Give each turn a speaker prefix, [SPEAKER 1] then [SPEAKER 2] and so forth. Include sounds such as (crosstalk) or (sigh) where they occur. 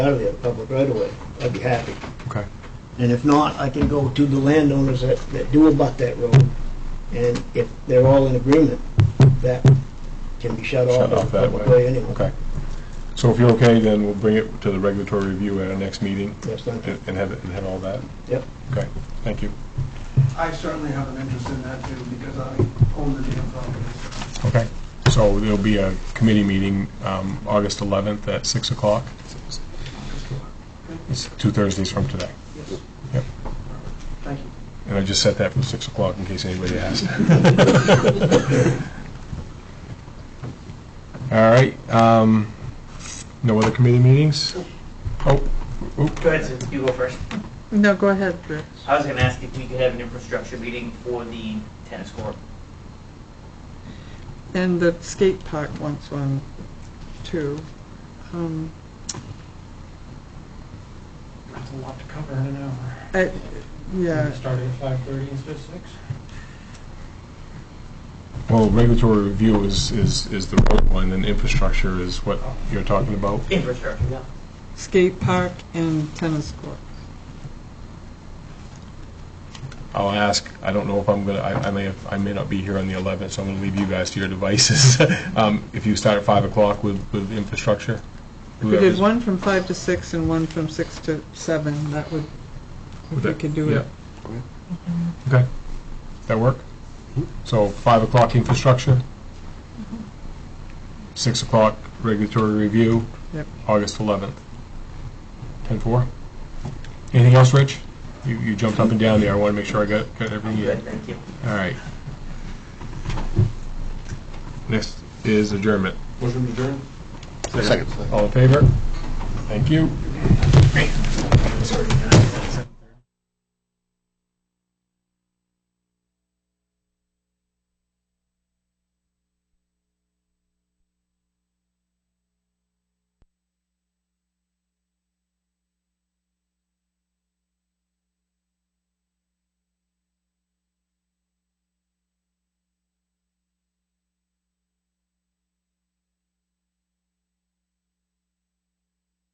[SPEAKER 1] out of there, public right away. I'd be happy.
[SPEAKER 2] Okay.
[SPEAKER 1] And if not, I can go to the landowners that, that do abut that road, and if they're all in agreement, that can be shut off.
[SPEAKER 2] Shut off
[SPEAKER 1] the
[SPEAKER 2] that
[SPEAKER 1] public
[SPEAKER 2] way.
[SPEAKER 1] anyway.
[SPEAKER 2] Okay. So if you're okay, then we'll bring it to the regulatory review at our next meeting
[SPEAKER 1] Yes, thank you.
[SPEAKER 2] and and have, it- and have all that?
[SPEAKER 1] Yep.
[SPEAKER 2] Okay, thank you.
[SPEAKER 3] I certainly have an interest in that too, because I own the damn property.
[SPEAKER 2] Okay. So there'll be a committee meeting um, August 11th at 6 o'clock. It's two Thursdays from today.
[SPEAKER 3] Yes.
[SPEAKER 2] Yep.
[SPEAKER 3] Thank you.
[SPEAKER 2] And I just set that for 6 o'clock in case anybody
[SPEAKER 3] (laughs)
[SPEAKER 2] asked. All right. um, No other committee meetings? Oh, oop.
[SPEAKER 4] Go ahead, Susan, you go first.
[SPEAKER 5] No, go ahead, Rich.
[SPEAKER 4] I was gonna ask if we could have an infrastructure meeting for the tennis court.
[SPEAKER 5] And the skate park wants one, too. Um,
[SPEAKER 6] That's a lot to cover in an hour.
[SPEAKER 5] I- Yeah,
[SPEAKER 6] We Started at five thirty instead of six.
[SPEAKER 2] Well, regulatory review is, is, is the road one, and infrastructure is what you're talking about.
[SPEAKER 4] Infrastructure, yeah.
[SPEAKER 5] skate park and tennis court.
[SPEAKER 2] I'll ask, I don't know if I'm gonna, I, I may, have- I may not be here on the 11th, so I'm gonna leave you guys to your devices. (laughs) Um, If you start at 5 o'clock with, with infrastructure?
[SPEAKER 5] If we did one from five to six and one from six to seven, that would, if we could do it.
[SPEAKER 2] Okay. That work? So 5 o'clock infrastructure?
[SPEAKER 5] Mm-hmm.
[SPEAKER 2] 6 o'clock regulatory review?
[SPEAKER 5] Yep.
[SPEAKER 2] August 11th. 10-4? Anything else, Rich? You, you jumped up and down there, I want to make sure I got, got everything in.
[SPEAKER 4] Good, thank you.
[SPEAKER 2] All right. Next is adjournment.
[SPEAKER 6] Motion adjourned?
[SPEAKER 2] All in favor? Thank you.